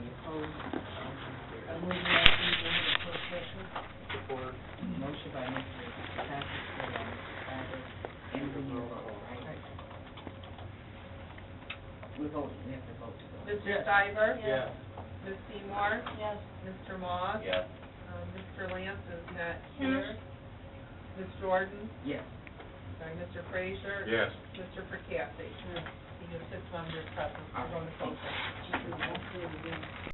we vote, we have to vote to go. Mr. Stiver? Yeah. Ms. Seymour? Yes. Mr. Moss? Yeah. Um, Mr. Lance is not Yes. here. Ms. Jordan? Yes. Sorry, Mr. Frazier? Yes. Mr. Percassi? He is six members present, All right. I'm going to close. She can vote for it again.